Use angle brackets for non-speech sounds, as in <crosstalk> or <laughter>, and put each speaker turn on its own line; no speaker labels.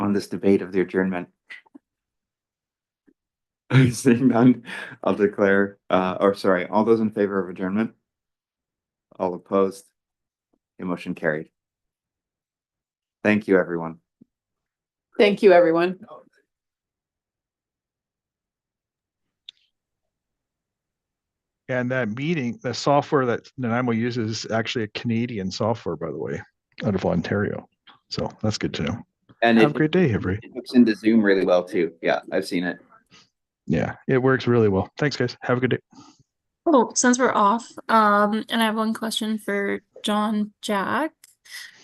on this debate of the adjournment? <laughs> Seeing none, I'll declare, uh, or sorry, all those in favor of adjournment? All opposed? The motion carried. Thank you, everyone.
Thank you, everyone.
And that meeting, the software that Nanaimo uses is actually a Canadian software, by the way, out of Ontario. So that's good to know.
And
Have a
it
great day, everybody.
it hooks into Zoom really well too. Yeah, I've seen it.
Yeah, it works really well. Thanks, guys. Have a good day.
Oh, since we're off, um, and I have one question for John Jack.